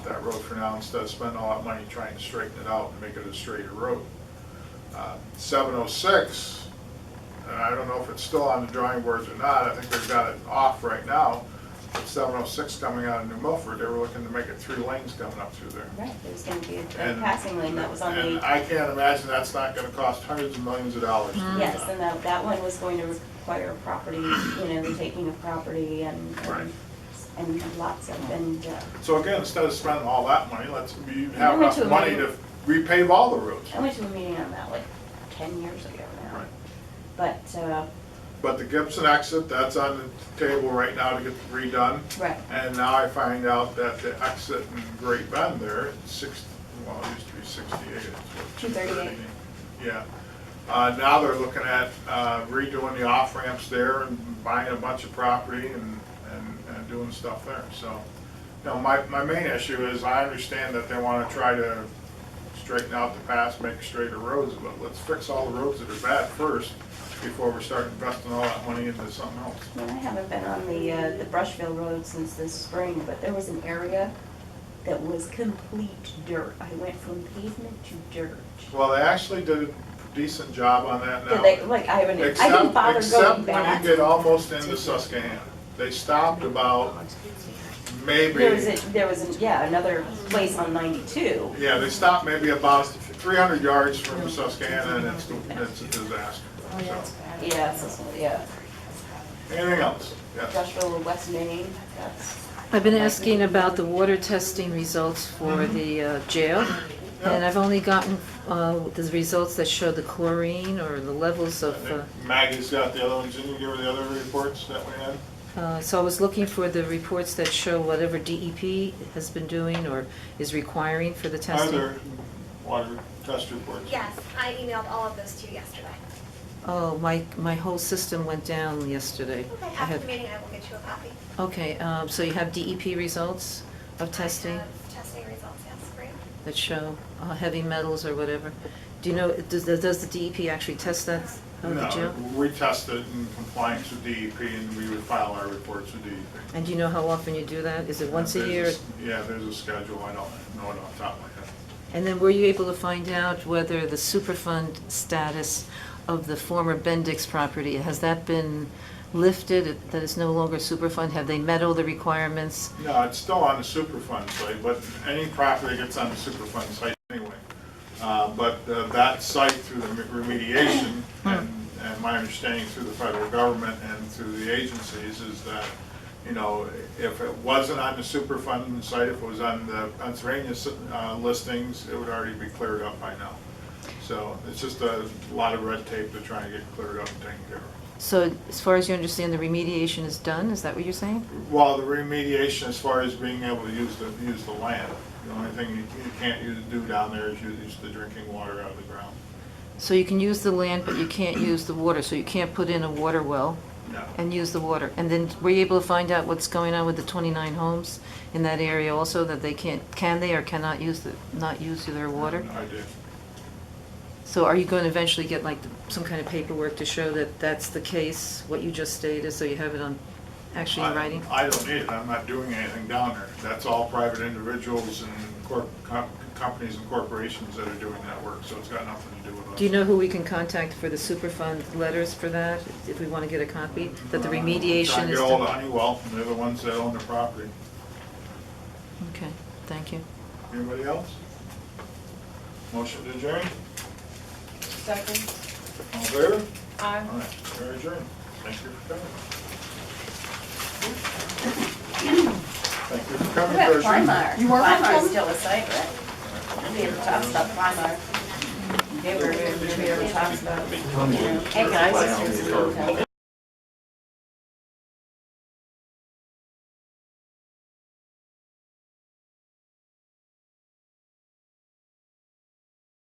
that road for now instead of spending all that money trying to straighten it out and make it a straighter road. Seven oh six, and I don't know if it's still on the drawing boards or not, I think they've got it off right now. But seven oh six coming out of New Milford, they were looking to make it three lanes coming up through there. Right, there's gonna be a a And- passing lane that was on And the, I can't imagine that's not gonna cost hundreds of millions of dollars. to do yes, that. and that, that one was going to require property, you know, the taking of property and, and- Right. and lots of, and, uh, So again, instead of spending all that money, let's, you have went to enough a money to meeting- repave all the roads. I went to a meeting on that like ten years ago now. Right. But, uh, But the Gibson exit, that's on the table right now to get redone. right, And now I find out that the exit in Great Bend there, it's six, well, it used to be sixty-eight, it's what, two 238. thirty? Yeah. Uh, now they're looking at uh, redoing the off ramps there and buying a bunch of property and, and, and doing stuff there, so. Now, my, my main issue is I understand that they wanna try to straighten out the pass, make straighter roads, but let's fix all the roads that are bad first before we start investing all that money into something else. I mean, I haven't been on the, uh, the Brushville Road since this spring, but there was an area that was complete dirt. I went from pavement to dirt. Well, they actually did a decent job on that Did now. they, like, I haven't, I didn't Except- bother going Except when back. you get almost into Susquehanna. They stopped about maybe, There was a, there was, an- yeah, another place on ninety-two. yeah, they stopped maybe about 300 yards from Susquehanna and it's, it's a disaster. So, Oh, Yeah, so, yeah, Anything else? Yes. Brushville, West Main, that's, I've been asking about the water testing results for the uh, jail, and Mm-hmm. Yeah. I've only gotten uh, the results that show the chlorine or the levels I of, uh, think Maggie's got the other ones. Didn't you give her the other reports that we had? uh, uh, so I was looking for the reports that show whatever DEP has been doing or is requiring for the testing. Other water test reports. Yes, I emailed all of those to you yesterday. Oh, my, my whole system went down yesterday. Okay, I after had- the meeting, I will get you a copy. Okay, um, so you have DEP results of I testing have Testing results, yes, great. that show uh, heavy metals or whatever? Do you know, does, does the DEP actually test that Oh, of the jail? No, we tested in compliance with DEP and we would file our reports with E DEP. And do you know how often you do that? Is it once a There's year? s- Yeah, there's a schedule, I don't know it off the top of my head. And then were you able to find out whether the Superfund status of the former Bendix property, has that been lifted, that it's no longer Superfund? Have they met all the requirements? No, it's still on the Superfund site, but any property gets on the Superfund site anyway. Uh, But uh, that site through the remediation, and and my understanding through the federal government and through the agencies is that, you know, if it wasn't on the Superfund site, if it was on the Pennsylvania s- uh, listings, it would already be cleared up by now. So it's just a lot of red tape to try and get cleared up and taken care of. So as far as you understand, the remediation is done, is that what you're saying? Well, the remediation as far as being able to use the, use the land, the only thing you you can't use, do down there is use the drinking water out of the ground. So you can use the land, but you can't use the water, so you can't put in a water well No. and use the water. And then were you able to find out what's going on with the 29 homes in that area also, that they can't, can they or cannot use, the not use their water? No, I did. So are you going to eventually get like some kind of paperwork to show that that's the case, what you just stated, so you have it on, actually in I- writing? I don't need it, I'm not doing anything down there. That's all private individuals and corp, com- companies and corporations that are doing that work, so it's got nothing to do with us. Do you know who we can contact for the Superfund letters for that, if we want to get a copy, that the Uh, trying remediation to is get ahold of done? Honeywell, they're the ones that own the property. Okay, thank you. Anybody else? Motion to adjourn? Second. All in favor? Aye. All right, we're adjourned. Thank you for coming. Thank you for What about coming, Gertrude. Primar? You work from Primar's home? still a site, right? We ever talked about Primar. Never, never, never talked about. Hey, guys, sisters,